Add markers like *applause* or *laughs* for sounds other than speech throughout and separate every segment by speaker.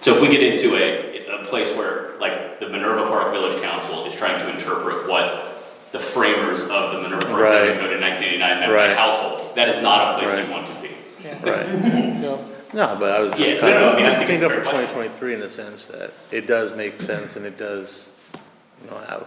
Speaker 1: So if we get into a, a place where, like, the Minerva Park Village Council is trying to interpret what the framers of the Minerva Park zoning
Speaker 2: Right.
Speaker 1: code in nineteen eighty-nine meant
Speaker 2: Right.
Speaker 1: by household, that is not a place
Speaker 2: Right.
Speaker 1: you want to be.
Speaker 2: Right.
Speaker 3: No.
Speaker 2: No, but I was
Speaker 1: Yeah,
Speaker 2: just kind
Speaker 1: no, no, I
Speaker 2: of,
Speaker 1: mean, I think
Speaker 2: I
Speaker 1: it's
Speaker 2: think
Speaker 1: a
Speaker 2: up
Speaker 1: fair
Speaker 2: for
Speaker 1: question.
Speaker 2: twenty twenty-three in the sense that it does make sense and it does, you know, have,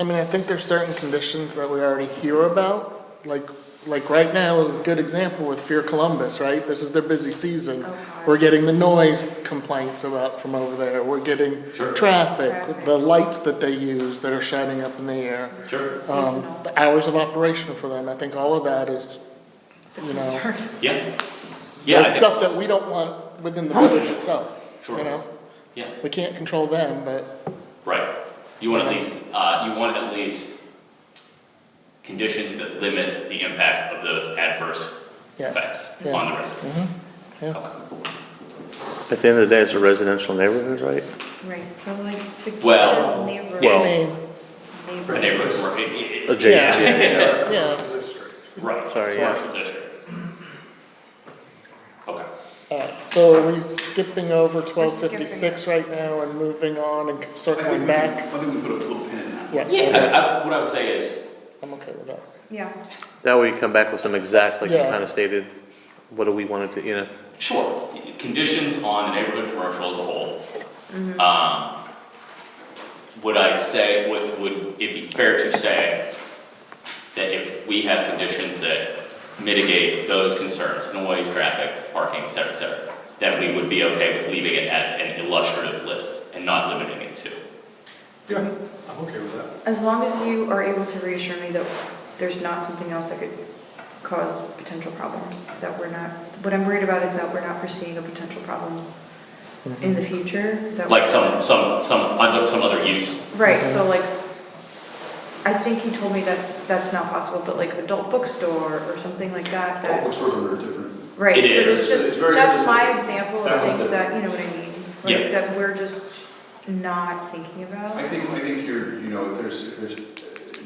Speaker 3: I mean, I think there's certain conditions that we already hear about, like, like right now, a good example with Fear Columbus, right? This is their busy season. We're getting the noise complaints about from over there, we're getting
Speaker 1: Sure.
Speaker 3: traffic, the lights that they use that are shining up in the air.
Speaker 1: Sure.
Speaker 3: Um, the hours of operation for them, I think all of that is, you know,
Speaker 1: Yeah. Yeah, I
Speaker 3: that's
Speaker 1: think-
Speaker 3: stuff that we don't want within the village itself, you
Speaker 1: Sure.
Speaker 3: know?
Speaker 1: yeah,
Speaker 3: We can't control them, but,
Speaker 1: right. You want at least, uh, you want at least conditions that limit the impact of those adverse
Speaker 3: Yeah.
Speaker 1: effects
Speaker 3: Yeah.
Speaker 1: on the residents.
Speaker 3: yeah.
Speaker 2: at the end of the day, it's a residential neighborhood, right?
Speaker 4: Right, so like to.
Speaker 1: Well,
Speaker 4: neighbor-
Speaker 2: yes.
Speaker 3: I mean,
Speaker 4: neighbor-
Speaker 1: The neighborhood, work- it- it- it-
Speaker 2: Mm-hmm. Adjacent,
Speaker 3: Yeah.
Speaker 1: *laughs*
Speaker 2: yeah,
Speaker 3: yeah.
Speaker 1: right, it's
Speaker 2: Sorry, yeah.
Speaker 1: commercial district. Okay.
Speaker 3: Alright, so are we skipping over
Speaker 4: We're
Speaker 3: twelve
Speaker 4: skipping
Speaker 3: fifty-six right now and moving on and
Speaker 5: I
Speaker 3: circling
Speaker 5: think we,
Speaker 3: back?
Speaker 5: I think we put a little pin in that.
Speaker 3: Yes.
Speaker 1: I, I, what I would say is,
Speaker 3: I'm okay with that.
Speaker 4: Yeah,
Speaker 2: That way you come back with some exacts, like you
Speaker 3: Yeah.
Speaker 2: kind of stated, what do we want it to, you know?
Speaker 1: sure, conditions on the neighborhood commercial as a whole. Um, would I say, would, would it be fair to say that if we have conditions that mitigate those concerns, noise, traffic, parking, et cetera, et cetera, that we would be okay with leaving it as an illustrative list and not limiting it to?
Speaker 5: Yeah, I'm okay with that.
Speaker 4: as long as you are able to reassure me that there's not something else that could cause potential problems, that we're not, what I'm worried about is that we're not foreseeing a potential problem in the future. that-
Speaker 1: Like some, some, some, other- some other use,
Speaker 4: Right, so like, I think he told me that that's not possible, but like adult bookstore or something like that,
Speaker 5: All
Speaker 4: that,
Speaker 5: bookstores are very different.
Speaker 4: right?
Speaker 1: It
Speaker 4: but it's
Speaker 1: is.
Speaker 4: just-
Speaker 5: It's very
Speaker 4: That's my
Speaker 5: specific.
Speaker 4: example
Speaker 5: That
Speaker 4: of
Speaker 5: one's
Speaker 4: things
Speaker 5: different.
Speaker 4: that, you know what I mean?
Speaker 1: Yeah.
Speaker 4: Like that we're just not thinking about.
Speaker 5: I think, I think you're, you know, if there's, if there's,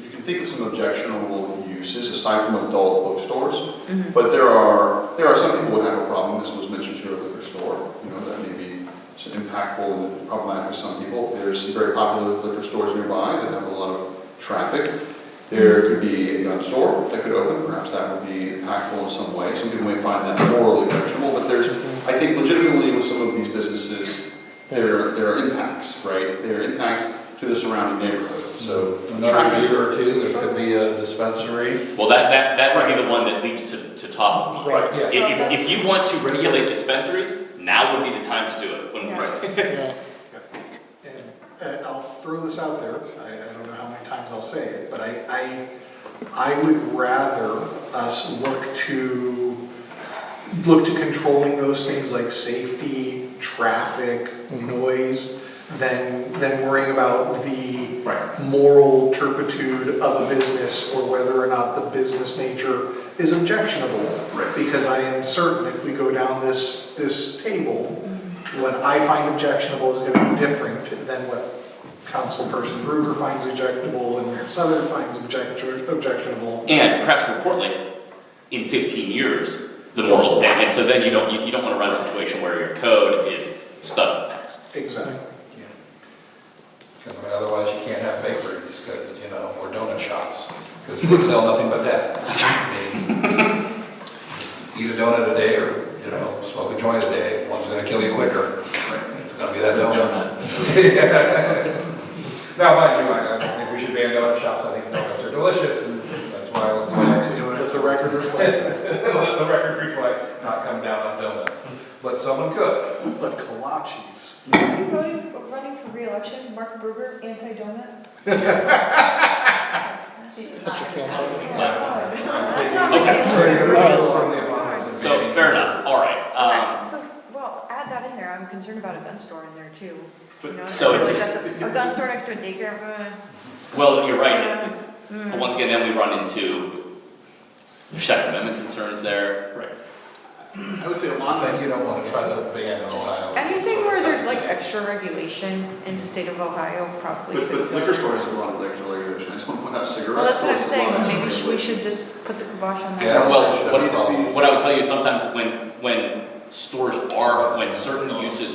Speaker 5: you can think of some objectionable uses aside from adult bookstores. But there are, there are some people would have a problem, this was mentioned here at liquor store, you know, that may be some impactful and problematic to some people. There's some very popular liquor stores nearby that have a lot of traffic. There could be a gun store that could open, perhaps that would be impactful in some way. Some people may find that morally objectionable, but there's, I think legitimately with some of these businesses, there, there are impacts, right? There are impacts to the surrounding neighborhood, so.
Speaker 6: Another year or two, there could be a dispensary.
Speaker 1: well, that, that, that would be the one that leads to, to top of mind.
Speaker 3: Right,
Speaker 6: yeah.
Speaker 1: If, if- if you want to regulate dispensaries, now would be the time to do it, when
Speaker 3: Yeah,
Speaker 4: Yeah.
Speaker 7: And- And I'll throw this out there, I, I don't know how many times I'll say it, but I, I, I would rather us look to, look to controlling those things like safety, traffic,
Speaker 5: Mm-hmm.
Speaker 7: noise, than, than worrying about the
Speaker 5: Right.
Speaker 7: moral turpitude of a business or whether or not the business nature is objectionable.
Speaker 5: Right.
Speaker 7: Because I am certain if we go down this, this table, what I find objectionable is gonna be different than what councilperson Bruger finds objectionable and Mayor Southern finds object- objectionable.
Speaker 1: And perhaps more importantly, in fifteen years, the morals, and, and so then you don't, you, you don't wanna run a situation where your code is stuck in the past.
Speaker 7: Exactly.
Speaker 6: Because otherwise you can't have bakeries, because, you know, or donut shops, because they sell nothing but that. That's right. Eat a donut a day or, you know, smoke a joint a day, one's gonna kill you quicker. It's gonna be that *laughs* donut. Now, mind you, I I don't think we should ban donut shops, I think donuts are delicious, and that's why I do it.
Speaker 7: Does the record reflect,
Speaker 6: Let *laughs* the record reflect, not come down on donuts, but someone could.
Speaker 7: but kolaches.
Speaker 8: Are you voting, running for reelection, Mark Berger, anti-donut?
Speaker 4: That's not what
Speaker 1: Okay.
Speaker 4: it is.
Speaker 1: So, fair enough, alright,
Speaker 4: Right,
Speaker 1: um,
Speaker 4: so, well, add that in there, I'm concerned about a gun store in there too. You know,
Speaker 1: so
Speaker 4: like
Speaker 1: it's-
Speaker 4: that's A a gun store next to a daycare, uh,
Speaker 1: well, you're right,
Speaker 4: Mm-hmm.
Speaker 1: but once again, then we run into the Second Amendment concerns there.
Speaker 5: Right. I would say a lot of.
Speaker 6: But you don't want to try to ban in Ohio.
Speaker 4: anything where there's like extra regulation in the state of Ohio probably.
Speaker 5: But, but
Speaker 4: could-
Speaker 5: liquor store has a lot of liquor regulation, I just want to point out
Speaker 4: Well,
Speaker 5: cigarette
Speaker 4: that's what
Speaker 5: stores.
Speaker 4: I'm
Speaker 5: have a lot of
Speaker 4: saying, maybe
Speaker 5: extra
Speaker 4: we
Speaker 5: regulation.
Speaker 4: should just put the kibosh on that.
Speaker 6: Yeah.
Speaker 1: Well,
Speaker 5: I mean, it's
Speaker 1: what, what I would tell you sometimes when, when stores are, when certain uses